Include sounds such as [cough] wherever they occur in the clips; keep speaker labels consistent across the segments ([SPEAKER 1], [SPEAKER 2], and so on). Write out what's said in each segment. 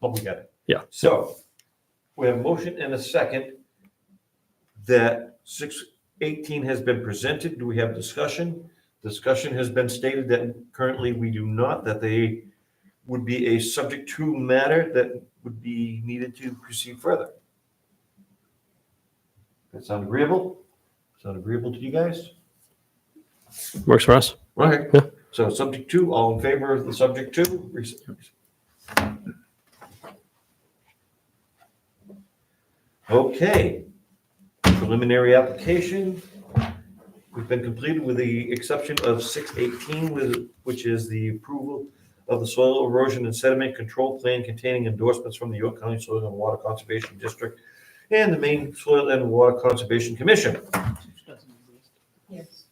[SPEAKER 1] but we got it.
[SPEAKER 2] Yeah.
[SPEAKER 1] So we have a motion and a second that six eighteen has been presented. Do we have discussion? Discussion has been stated that currently we do not, that they would be a subject to matter that would be needed to proceed further. That sound agreeable? Sound agreeable to you guys?
[SPEAKER 2] Works for
[SPEAKER 3] [laughs]
[SPEAKER 2] us.
[SPEAKER 1] Right.
[SPEAKER 2] Yeah.
[SPEAKER 1] So subject two, all in favor of the subject two? Re- Okay. Preliminary application. We've been completed with the exception of six eighteen, with, which is the approval of the soil erosion and sediment control plan containing endorsements from the York County Soil and Water Conservation District and the Maine Soil and Water Conservation Commission.
[SPEAKER 4] Yes.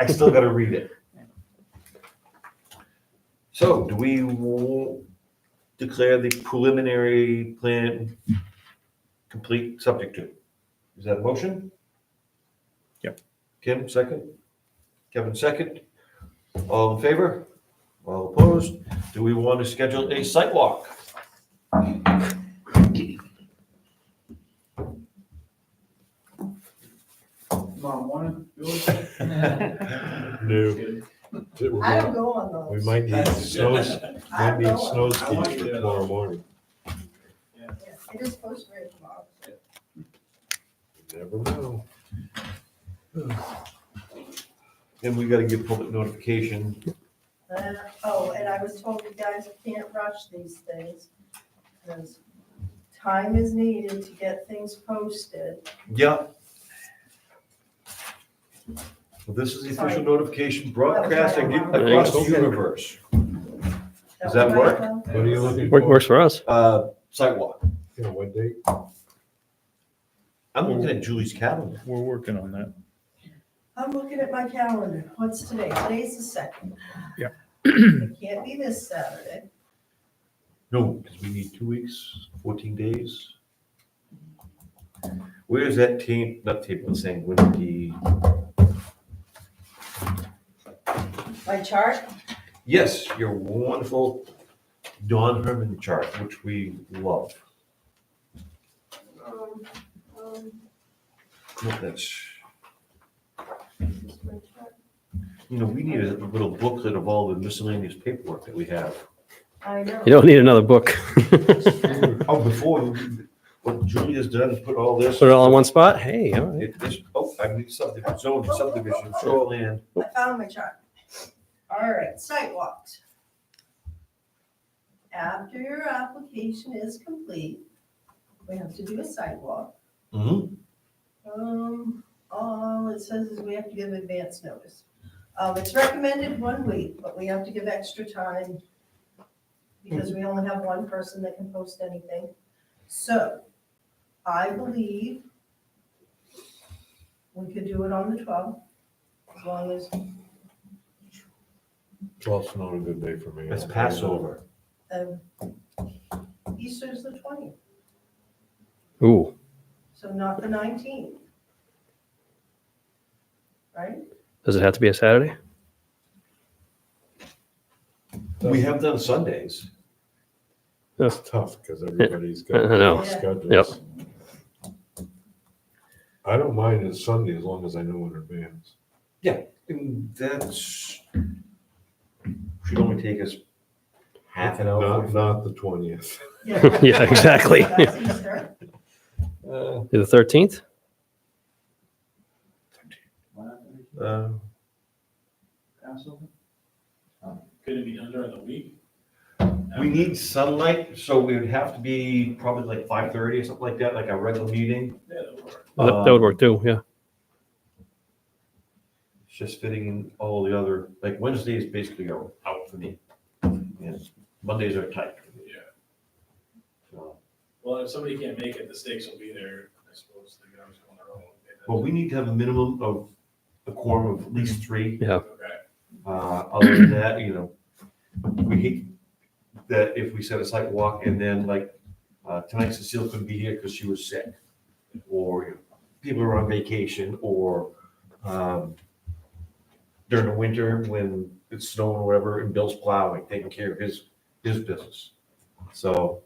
[SPEAKER 1] I still gotta read it. So do we w- declare the preliminary plan complete subject to? Is that a motion?
[SPEAKER 2] Yep.
[SPEAKER 1] Kim, second? Kevin, second? All in favor? All opposed? Do we want to schedule a site
[SPEAKER 3] [laughs]
[SPEAKER 1] walk?
[SPEAKER 5] Tomorrow morning?
[SPEAKER 3] No.
[SPEAKER 4] I don't go on those.
[SPEAKER 3] We might need snows,
[SPEAKER 4] [laughs] I don't
[SPEAKER 3] might need
[SPEAKER 4] go on-
[SPEAKER 3] snow skis for tomorrow morning.
[SPEAKER 4] yeah, It is supposed to rain tomorrow.
[SPEAKER 3] You Never know.
[SPEAKER 1] And we gotta give public notification.
[SPEAKER 4] Uh, Oh, and I was told you guys can't rush these things. because Time is needed to get things posted.
[SPEAKER 1] Yeah. Well, This is the official
[SPEAKER 4] Sorry.
[SPEAKER 1] notification broadcasting
[SPEAKER 2] Thanks.
[SPEAKER 1] across the universe. Does that
[SPEAKER 4] was
[SPEAKER 1] work?
[SPEAKER 4] my phone.
[SPEAKER 3] What are you looking
[SPEAKER 2] Work-
[SPEAKER 3] for?
[SPEAKER 2] Works for us.
[SPEAKER 1] uh, sidewalk.
[SPEAKER 3] You know, what date?
[SPEAKER 1] I'm looking at Julie's calendar.
[SPEAKER 6] We're working on that.
[SPEAKER 4] I'm looking at my calendar. What's today? Today's the second.
[SPEAKER 6] Yeah.
[SPEAKER 4] It can't be this Saturday.
[SPEAKER 1] No, because we need two weeks, fourteen days. Where is that team, not table, I'm saying, with the,
[SPEAKER 4] My chart?
[SPEAKER 1] yes, your wonderful Don Herman chart, which we love.
[SPEAKER 4] Um, um,
[SPEAKER 1] Look, That's,
[SPEAKER 4] my chart.
[SPEAKER 1] you know, we need a little booklet of all the miscellaneous paperwork that we have.
[SPEAKER 4] I know.
[SPEAKER 2] You don't need another
[SPEAKER 3] [laughs]
[SPEAKER 2] book.
[SPEAKER 1] Oh, before, what Julia's done is put all this.
[SPEAKER 2] Put it all in one spot. Hey, all right.
[SPEAKER 1] It- this- oh, I mean, subdivision, zone, subdivision, shoreline.
[SPEAKER 4] I found my chart. All right, sidewalks. After your application is complete, we have to do a sidewalk.
[SPEAKER 1] Mm-hmm.
[SPEAKER 4] Um, all it says is we have to give advance notice. Um, it's recommended one week, but we have to give extra time because we only have one person that can post anything. So I believe we could do it on the twelfth, as long as
[SPEAKER 3] Twelve's not a good day for me.
[SPEAKER 1] It's Passover.
[SPEAKER 4] Um, Easter's the twentieth,
[SPEAKER 2] Ooh,
[SPEAKER 4] so not the nineteenth. Right?
[SPEAKER 2] does it have to be a Saturday?
[SPEAKER 1] We have done Sundays.
[SPEAKER 3] It's tough because everybody's got.
[SPEAKER 2] [laughs] I know.
[SPEAKER 3] schedules. I don't mind it Sunday as long as I know in advance.
[SPEAKER 1] And that's, should only take us half an hour.
[SPEAKER 3] Not, not the twentieth.
[SPEAKER 2] [laughs] Yeah, exactly.
[SPEAKER 4] That's Easter.
[SPEAKER 1] Uh,
[SPEAKER 2] The 13th?
[SPEAKER 1] uh,
[SPEAKER 5] Passover?
[SPEAKER 7] Could it be done during the week?
[SPEAKER 1] We need sunlight, so we would have to be probably like five thirty or something like that, like a regular meeting.
[SPEAKER 7] Yeah, that works.
[SPEAKER 2] That that would work too. Yeah.
[SPEAKER 1] It's just fitting in all the other, like Wednesdays basically are out for me. Yes, Mondays are tight.
[SPEAKER 7] Yeah.
[SPEAKER 1] So,
[SPEAKER 7] Well, if somebody can't make it, the stakes will be there, I suppose, they can always go on their own.
[SPEAKER 1] But we need to have a minimum of a quorum of at least three.
[SPEAKER 7] Okay,
[SPEAKER 1] Uh, other than that, you know, we hate that if we set a site walk and then like, uh, tonight Cecile couldn't be here because she was sick. Or you know, people are on vacation or, um, during the winter when it's snowing or whatever and Bill's plowing, taking care of his, his business. So